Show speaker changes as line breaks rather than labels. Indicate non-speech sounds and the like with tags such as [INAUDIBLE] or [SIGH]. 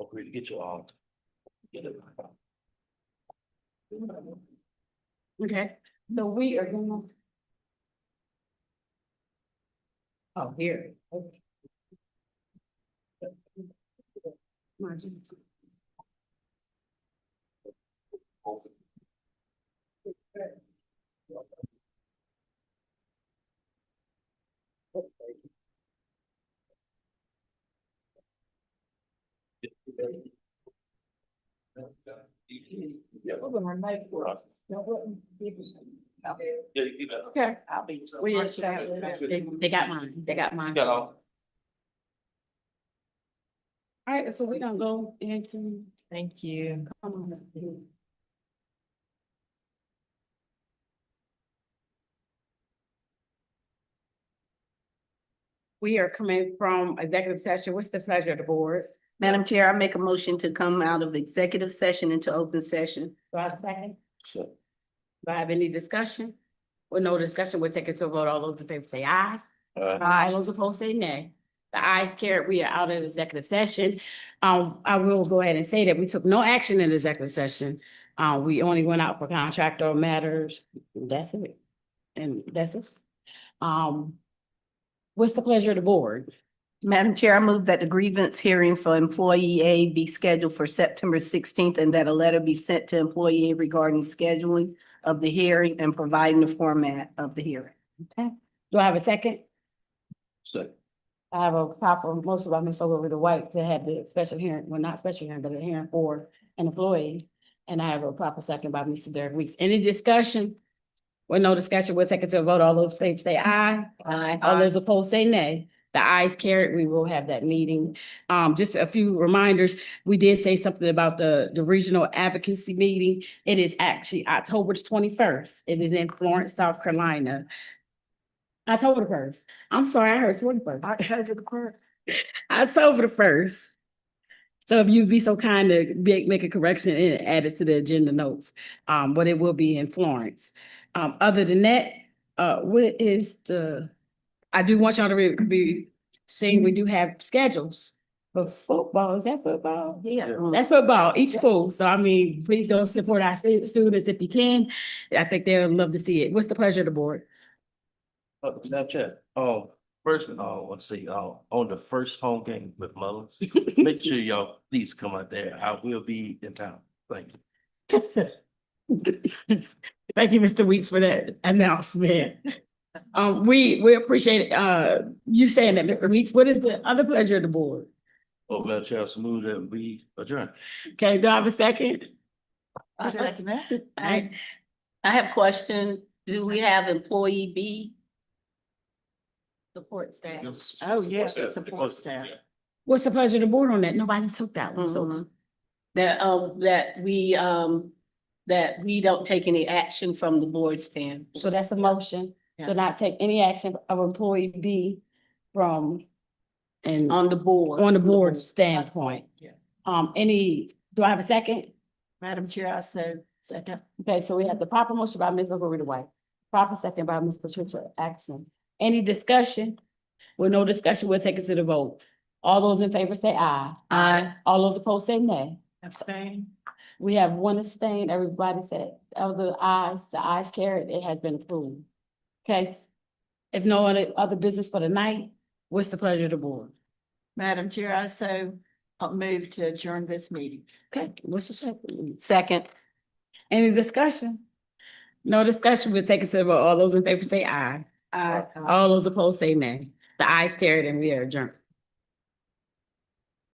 Okay, to get you out. Get it.
Okay, so we are going. Oh, here. okay. Margin.
Yeah,
Hold on, my mic works. No, what-
yeah, you got it.
Okay. We are.
They-
They got mine, they got mine.
Got all.
Alright, so we gonna go into.
Thank you.
um, We are coming from executive session. What's the pleasure of the board?
Madam Chair, I make a motion to come out of executive session into open session.
Do I have a second?
So,
Do I have any discussion? With no discussion, we'll take it to a vote. All those in favor say aye.
uh,
Aye. Those opposed say nay. The ayes carried, we are out of executive session. Um, I will go ahead and say that we took no action in executive session. Uh, we only went out for contractor matters. That's it. And that's it. Um, what's the pleasure of the board?
Madam Chair, I move that the grievance hearing for employee A be scheduled for September sixteenth and that a letter be sent to employee A regarding scheduling of the hearing and providing the format of the hearing.
Do I have a second?
so,
I have a proper motion by Ms. Ogilvy the White to have the special hearing, well, not special hearing, but a hearing for an employee. And I have a proper second by Mr. Derek Weeks. Any discussion? With no discussion, we'll take it to a vote. All those in favor say aye. Aye. All those opposed say nay. The ayes carried. We will have that meeting. Um, just a few reminders. We did say something about the, the regional advocacy meeting. It is actually October twenty-first. It is in Florence, South Carolina. October the first. I'm sorry, I heard twenty-first.
October the clerk.
October the first. So if you'd be so kind to make, make a correction and add it to the agenda notes, um, but it will be in Florence. Um, other than that, uh, what is the, I do want y'all to re- be seeing, we do have schedules. for football, is that football?
Yeah.
That's football, each school. So I mean, please go support our stu- students if you can. I think they'll love to see it. What's the pleasure of the board?
uh, Snapchat, oh, first, oh, let's see, oh, on the first home game with
[LAUGHS]
Mullins, make sure y'all please come out there. I will be in town. Thank you.
Thank you, Mr. Weeks, for that announcement. Um, we, we appreciate, uh, you saying that, Mr. Weeks. What is the other pleasure of the board?
Oh, Madam Chair, I so move that we adjourn.
Okay, do I have a second?
I second
that.
I have a question. Do we have employee B? Support staff.
Oh, yes, it's a support staff.
What's the pleasure of the board on that? Nobody took that one, so.
Mhm. That, um, that we, um, that we don't take any action from the board stand.
So that's the motion,
Yeah.
to not take any action of employee B from, and
On the board.
on the board standpoint.
Yeah.
Um, any, do I have a second?
Madam Chair, I so second.
Okay, so we have the proper motion by Ms. Margarita White, proper second by Ms. Patricia Axon. Any discussion? With no discussion, we'll take it to the vote. All those in favor say aye.
Aye.
All those opposed say nay.
Abstain.
We have one abstain. Everybody said, of the ayes, the ayes carried, it has been approved. Okay? If no other, other business for the night, what's the pleasure of the board?
Madam Chair, I so uh, move to adjourn this meeting.
Okay, what's the second?
Second.
Any discussion? No discussion, we'll take it to the vote. All those in favor say aye.
Aye.
All those opposed say nay. The ayes carried and we are adjourned.